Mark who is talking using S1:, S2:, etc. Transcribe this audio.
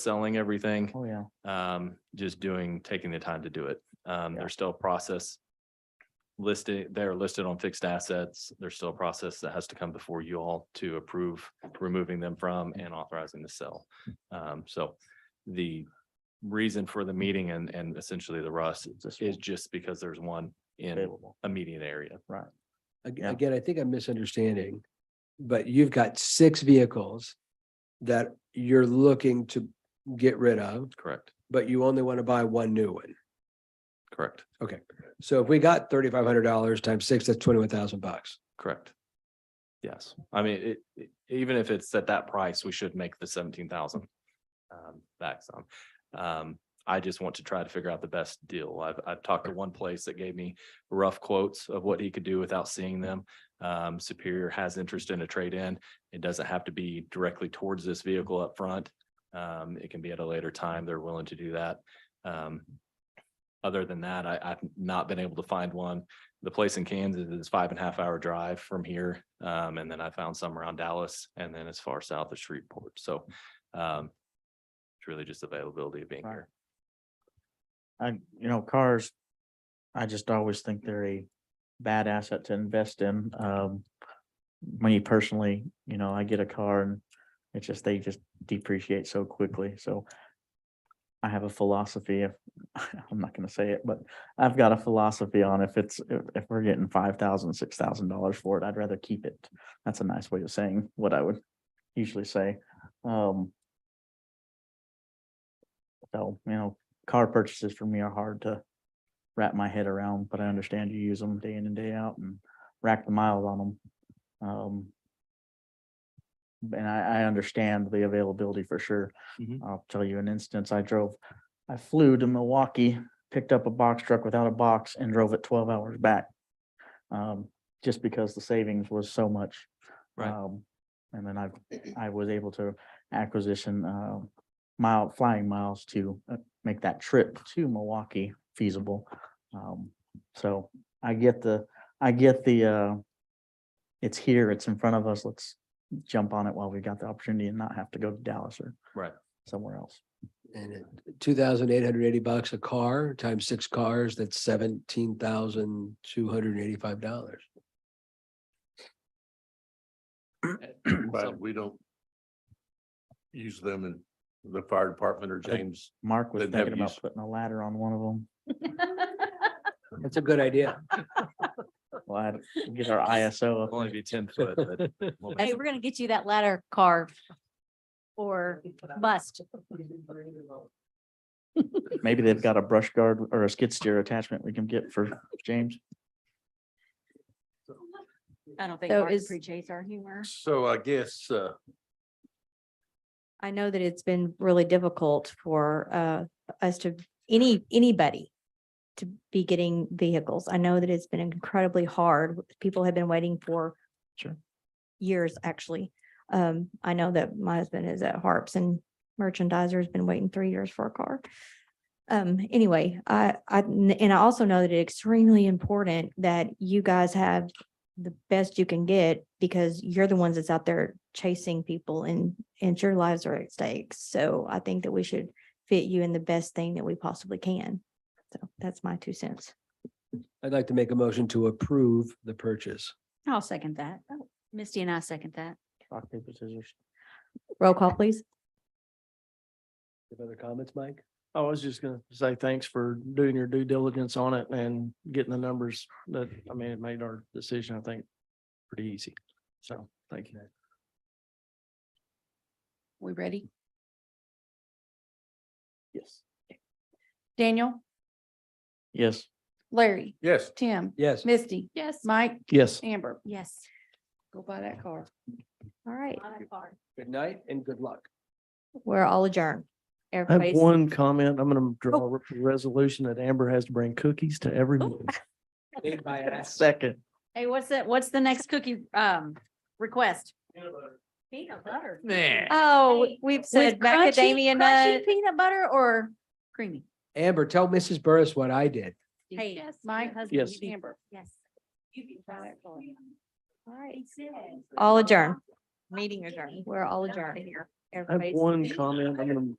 S1: selling everything,
S2: Oh, yeah.
S1: um, just doing, taking the time to do it. Um,
S2: Yeah.
S1: there's still a process listed, they're listed on fixed assets. There's still a process that has to come before you all to approve removing them from and authorizing the sell. Um, so the reason for the meeting and, and essentially the rust
S2: This
S1: is
S2: is
S1: just because there's one in
S2: available.
S1: immediate area.
S3: Ag-
S2: Yeah.
S3: Again, I think I'm misunderstanding, but you've got six vehicles that you're looking to get rid of,
S1: Correct,
S3: but you only want to buy one new one.
S1: correct,
S3: So if we got thirty-five hundred dollars times six, that's twenty-one thousand bucks.
S1: correct. Yes, I mean, it, it- even if it's at that price, we should make the seventeen thousand um, back some. Um, I just want to try to figure out the best deal. I've, I've talked to one place that gave me rough quotes of what he could do without seeing them. Um, Superior has interest in a trade-in. It doesn't have to be directly towards this vehicle up front. Um, it can be at a later time. They're willing to do that. Um, other than that, I, I've not been able to find one. The place in Kansas is five and a half hour drive from here. Um, and then I found some around Dallas and then as far south as Shreveport. So, um, it's really just availability of being
S2: Right.
S1: here.
S2: I, you know, cars, I just always think they're a bad asset to invest in. Um, me personally, you know, I get a car and it's just, they just depreciate so quickly, so. I have a philosophy of, I'm not gonna say it, but I've got a philosophy on if it's, if, if we're getting five thousand, six thousand dollars for it, I'd rather keep it. That's a nice way of saying what I would usually say. Um. So, you know, car purchases for me are hard to wrap my head around, but I understand you use them day in and day out and rack the miles on them. Um. And I, I understand the availability for sure.
S1: Mhm.
S2: I'll tell you an instance, I drove, I flew to Milwaukee, picked up a box truck without a box and drove it twelve hours back. Um, just because the savings was so much.
S1: Right.
S2: Um, And then I, I was able to acquisition, uh, mile, flying miles to uh, make that trip to Milwaukee feasible. Um, so I get the, I get the, uh, it's here, it's in front of us, let's jump on it while we got the opportunity and not have to go to Dallas or
S1: Right.
S2: somewhere else.
S3: And two thousand eight hundred eighty bucks a car times six cars, that's seventeen thousand two hundred eighty-five dollars.
S4: But
S1: So-
S4: we don't use them in the fire department or
S2: think-
S4: James.
S2: Mark was
S4: Then have
S2: thinking about
S4: use-
S2: putting a ladder on one of them.
S3: That's a good idea.
S2: We'll have to get our ISO up.
S1: Only be ten foot, but we'll
S5: Hey, we're gonna get you that ladder carved or bust.
S2: Maybe they've got a brush guard or a skid steer attachment we can get for James.
S6: I don't think
S5: So
S6: Mark
S5: is-
S6: appreciates our humor.
S4: So I guess, uh,
S5: I know that it's been really difficult for uh us to, any, anybody to be getting vehicles. I know that it's been incredibly hard. People have been waiting for
S2: Sure.
S5: years, actually. Um, I know that my husband is at Harps and merchandiser has been waiting three years for a car. Um, anyway, I, I, and I also know that it's extremely important that you guys have the best you can get because you're the ones that's out there chasing people and, and your lives are at stake. So I think that we should fit you in the best thing that we possibly can. So that's my two cents.
S3: I'd like to make a motion to approve the purchase.
S6: I'll second that. Misty and I second that.
S2: Rock, paper, scissors.
S5: Roll call, please.
S3: You have other comments, Mike?
S7: I was just gonna say thanks for doing your due diligence on it and getting the numbers that, I mean, it made our decision, I think, pretty easy. So, thank you.
S6: We ready?
S2: Yes.
S6: Daniel,
S2: Yes.
S6: Larry,
S4: yes,
S6: Tim,
S3: Yes.
S6: Misty. Yes. Mike,
S7: Yes.
S6: Amber,
S5: Yes.
S6: go buy that car.
S5: All right.
S3: Good night and good luck.
S5: We're all adjourned.
S7: I have
S5: Everybody's.
S7: one comment. I'm gonna draw a resolution that Amber has to bring cookies to every
S5: Oh.
S7: meeting.
S3: Made by us.
S7: Second.
S6: Hey, what's that? What's the next cookie um request?
S5: Peanut butter.
S1: Nah.
S5: Oh, we've said macadamia nut.
S6: Peanut butter or creamy?
S3: Amber, tell Mrs. Burris what I did.
S6: Hey, Mike, husband,
S7: Yes.
S6: Amber.
S5: Yes.
S6: All
S5: right. All adjourned. Meeting adjourned. We're all adjourned.
S7: I have
S5: Everybody's.
S7: one comment. I'm gonna